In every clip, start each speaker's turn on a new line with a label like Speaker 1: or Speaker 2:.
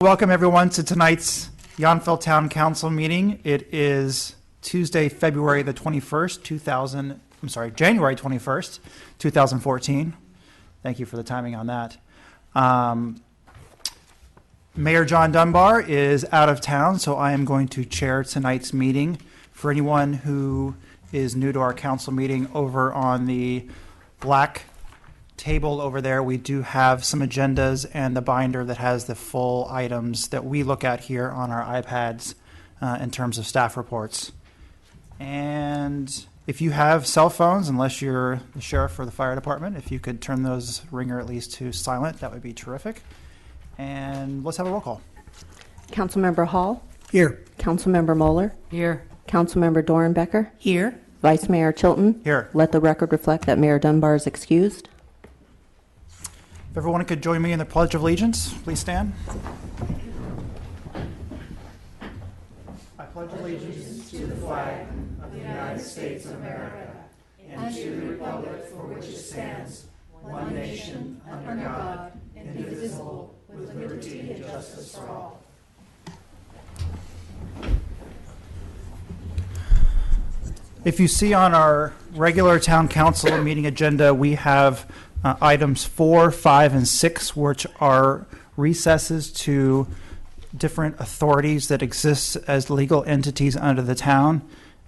Speaker 1: Welcome, everyone, to tonight's Yountville Town Council meeting. It is Tuesday, February the 21st, 2000, I'm sorry, January 21st, 2014. Thank you for the timing on that. Um, Mayor John Dunbar is out of town, so I am going to chair tonight's meeting. For anyone who is new to our council meeting over on the black table over there, we do have some agendas and the binder that has the full items that we look at here on our iPads uh, in terms of staff reports. And if you have cell phones, unless you're the sheriff or the fire department, if you could turn those ringer at least to silent, that would be terrific. And let's have a roll call.
Speaker 2: Councilmember Hall,
Speaker 1: Here.
Speaker 2: Councilmember Moeller,
Speaker 3: Here.
Speaker 2: Councilmember Doran Becker,
Speaker 3: Here.
Speaker 2: Vice Mayor Chilton.
Speaker 1: Here.
Speaker 2: Let the record reflect that Mayor Dunbar is excused.
Speaker 1: If everyone could join me in the Pledge of Allegiance, please stand. If you see on our regular town council meeting agenda, we have uh, items four, five, and six, which are recesses to different authorities that exist as legal entities under the town.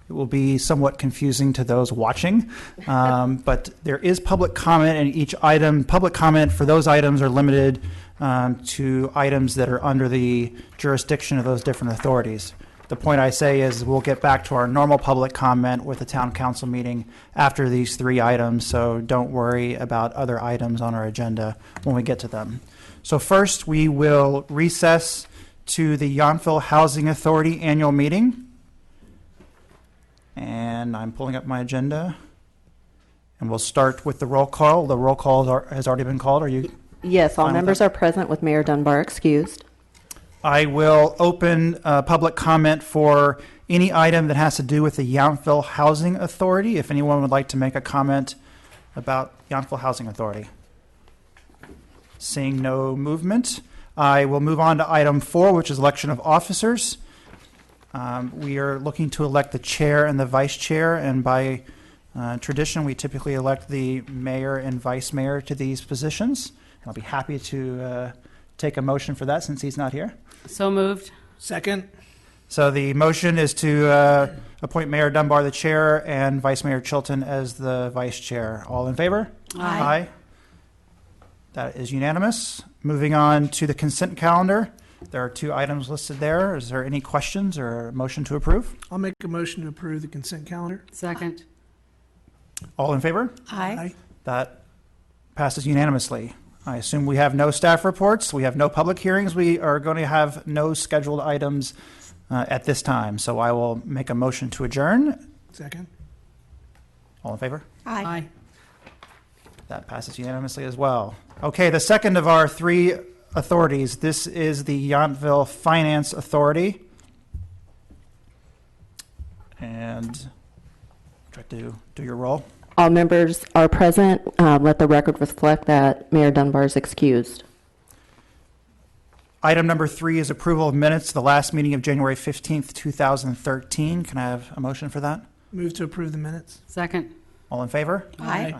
Speaker 1: It will be somewhat confusing to those watching, um, but there is public comment in each item. Public comment for those items are limited um, to items that are under the jurisdiction of those different authorities. The point I say is we'll get back to our normal public comment with the town council meeting after these three items, so don't worry about other items on our agenda when we get to them. So first, we will recess to the Yountville Housing Authority Annual Meeting. And I'm pulling up my agenda. And we'll start with the roll call. The roll call are- has already been called. Are you?
Speaker 2: Yes, all
Speaker 1: Fine with
Speaker 2: members are present with Mayor Dunbar excused.
Speaker 1: I will open uh, public comment for any item that has to do with the Yountville Housing Authority. If anyone would like to make a comment about Yountville Housing Authority. Seeing no movement, I will move on to item four, which is election of officers. Um, We are looking to elect the chair and the vice chair, and by uh, tradition, we typically elect the mayor and vice mayor to these positions. I'll be happy to uh, take a motion for that since he's not here.
Speaker 3: So moved.
Speaker 4: Second?
Speaker 1: So the motion is to uh, appoint Mayor Dunbar the chair and Vice Mayor Chilton as the vice chair. All in favor?
Speaker 3: Aye.
Speaker 1: That is unanimous. Moving on to the consent calendar. There are two items listed there. Is there any questions or a motion to approve?
Speaker 4: I'll make a motion to approve the consent calendar.
Speaker 3: Second.
Speaker 1: All in favor?
Speaker 3: Aye.
Speaker 1: That passes unanimously. I assume we have no staff reports, we have no public hearings, we are going to have no scheduled items uh, at this time. So I will make a motion to adjourn.
Speaker 4: Second?
Speaker 1: All in favor?
Speaker 3: Aye.
Speaker 1: That passes unanimously as well. Okay, the second of our three authorities, this is the Yountville Finance Authority. And try to do your roll.
Speaker 2: All members are present. Uh, Let the record reflect that Mayor Dunbar is excused.
Speaker 1: Item number three is approval of minutes, to the last meeting of January 15th, 2013. Can I have a motion for that?
Speaker 4: Move to approve the minutes.
Speaker 3: Second.
Speaker 1: All in favor?
Speaker 3: Aye.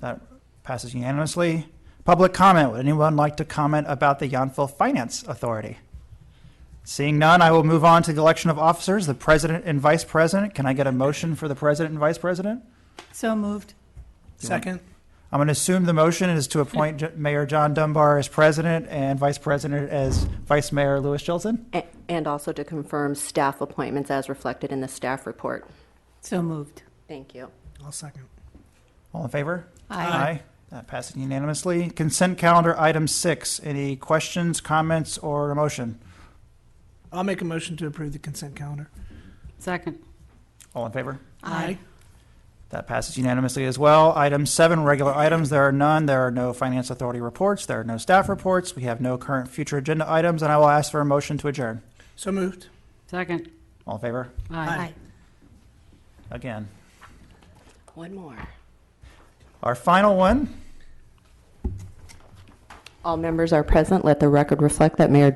Speaker 1: That passes unanimously. Public comment. Would anyone like to comment about the Yountville Finance Authority? Seeing none, I will move on to the election of officers, the president and vice president. Can I get a motion for the president and vice president?
Speaker 5: So moved.
Speaker 4: Second?
Speaker 1: I'm going to assume the motion is to appoint J- Mayor John Dunbar as president and vice president as Vice Mayor Louis Chilton.
Speaker 2: A- And also to confirm staff appointments as reflected in the staff report.
Speaker 5: So moved.
Speaker 2: Thank you.
Speaker 4: I'll second.
Speaker 1: All in favor?
Speaker 5: Aye.
Speaker 1: That passes unanimously. Consent calendar, item six. Any questions, comments, or a motion?
Speaker 4: I'll make a motion to approve the consent calendar.
Speaker 3: Second.
Speaker 1: All in favor?
Speaker 5: Aye.
Speaker 1: That passes unanimously as well. Item seven, regular items. There are none. There are no finance authority reports. There are no staff reports. We have no current future agenda items, and I will ask for a motion to adjourn.
Speaker 4: So moved.
Speaker 3: Second.
Speaker 1: All in favor?
Speaker 3: Aye.
Speaker 1: Again.
Speaker 2: One more.
Speaker 1: Our final one.
Speaker 2: All members are present. Let the record reflect that Mayor